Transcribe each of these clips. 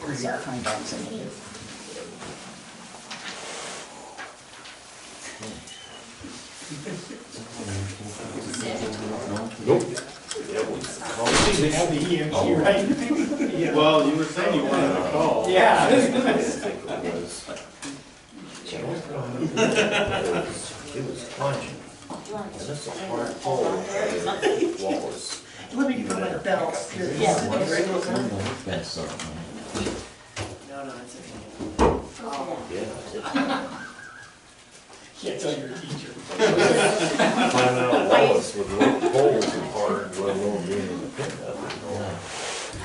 Where you find out something. Oh. Well, you were saying you wanted to call. Yeah. I think it was. It was plunging, and this is where I told the wall was. Let me go with bells. Yes. No, no, it's okay. Yeah. Can't tell you're a teacher. Climbing out of walls with little holes as hard, let alone being in the pickup.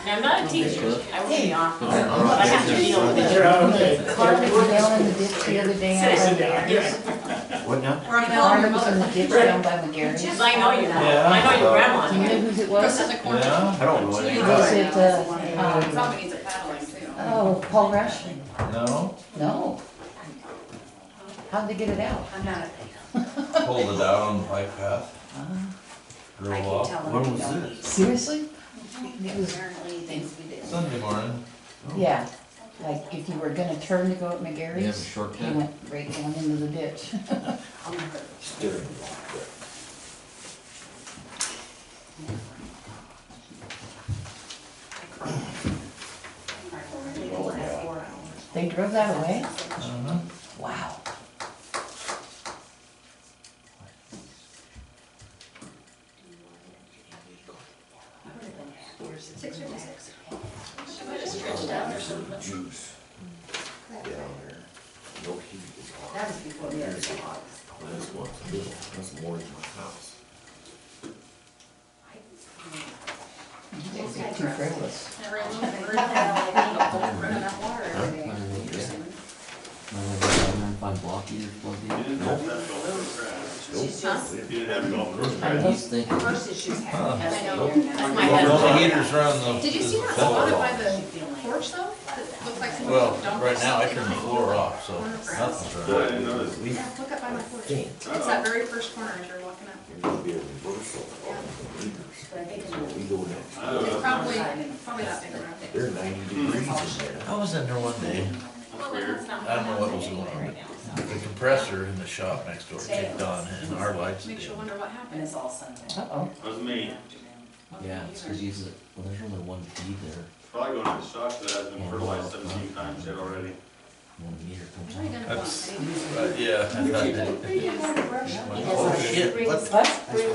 Now, I'm not a teacher, I work in the office, but I have to deal with it. You're out, okay. Carmen was down in the ditch the other day. Sit Sit down. What now? Or I'm calling your Carmen was in mother. the ditch down by McGarry's. Because I know you, I know your grandma. Do you know whose it was? It I don't know anything was about it. it, uh, um, Probably needs a paddling too. oh, Paul Rush? No, No. How'd they get it out? I'm not, pulled it out on the bike path. Grew up When was this? Seriously? It was, apparently things we did. Sunday morning. yeah, like if you were gonna turn to go at McGarry's, you shortcut. went right down into the ditch. Steering wheel. They drove that away? Uh-huh. Wow. juice down there. No heat is hot. That was before the other hot. This one's good, that's more than my house. Those are Too frivolous. Find block either plug in. You didn't have golf course, I I love- was thinking, That's my Well, the head. heater's around the. Did you see that spot floor. by the porch though? That looks like someone. Well, dumped right now I something turned the on it. floor off, so nothing's I wrong. didn't notice. We, Yeah, look up by my porch. It's that very first corner as you're walking up. there's gonna be a reversal on the meters. So we go down, It's probably, probably that big around it. they're ninety degrees in there. I was in there one day, I don't know what was going on. the compressor in the shop next door kicked on and our lights Makes did. you wonder what happened. it's all Sunday. Uh-oh. was me. yeah, it's cause he's, a- well, there's only one feed there, Probably going to shock that has been fertilized seventeen times yet already. one meter comes What are you out. That's, but yeah, I gonna want? I didn't- thought that. Oh shit, what Oh, Spring,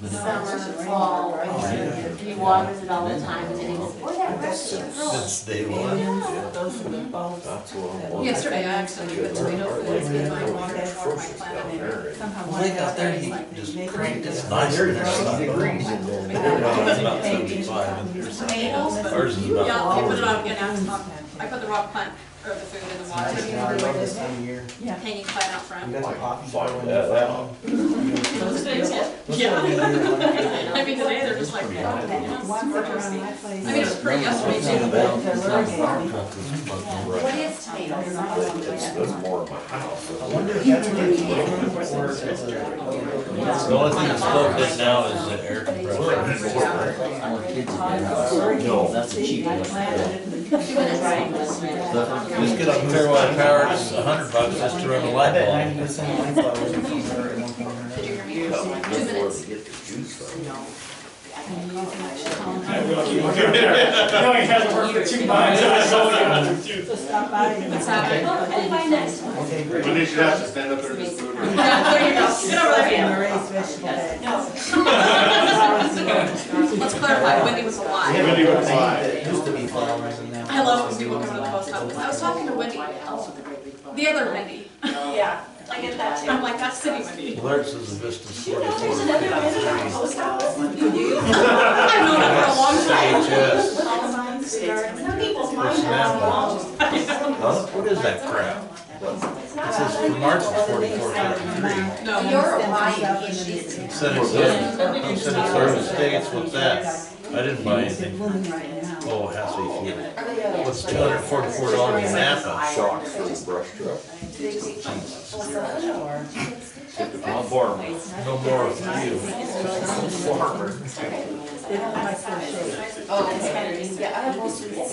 But it- summer, fall, right? He waters it all the time and then he goes, boy, that grass is growing. since day one? That's what I'm wondering. Yesterday I accidentally put tomato fluid in my water, to water my Atrocious down plant and there. and somehow Well, one they got got their there and heat like. just cranked, it's nice in there. Sixty degrees in there. They're not- About seventy-five in there. Tomatoes, but Ours is about. Yeah, I put it on, yeah, now it's, I put the raw plant, or the food in the water, this time of year. hanging plant out front. got the coffee Fuck going. that out. Yeah. I mean, today they're just like, yeah, you know, it's I mean, it was pretty yesterday too, but It's not a fire truck, it's plugged in. What is tomatoes? I don't know. That's, that's more of my house. I wonder if that's what it's for, or if it's a. The only thing that's plugged in now is the air compressor. All the kids have been out. No. That's a cheap one. Doing it right, this man. Just get a clearwater power, it's a hundred bucks just to run a I light bet bulb. ninety percent of my flowers are from her at one point or another. did you hear me? That's where Two minutes. they get the juice from. No, he hasn't worked for two months, I saw him. What's happening? Oh, hey, my next one. Okay, But great. they should have to stand up there and just move it. Yeah, there you go, get over there. Let's clarify, Wendy was We alive. have Wendy a would thing lie. that used to be flowers and now. I love when people come to the post office, I was talking to Wendy, the other Wendy, Yeah, I get that too, I'm like, that's city Wendy. Alerts is a Vista There's forty-four. another minute at the post office. I've known her for a long time. CHS. Some people's minds are Personnel. wrong. Huh? What is that crap? It says from March of forty-four thirty-three. No. You're Hawaiian, she's. Senate service, Senate service tickets, what's that? I didn't buy anything. Oh, it has to be fuel. uh, What's two hundred forty-four dollars in Napa? Shock for the brush truck. I'll borrow it. No more for you. Farmer. Oh, it's kind of, yeah, I have most of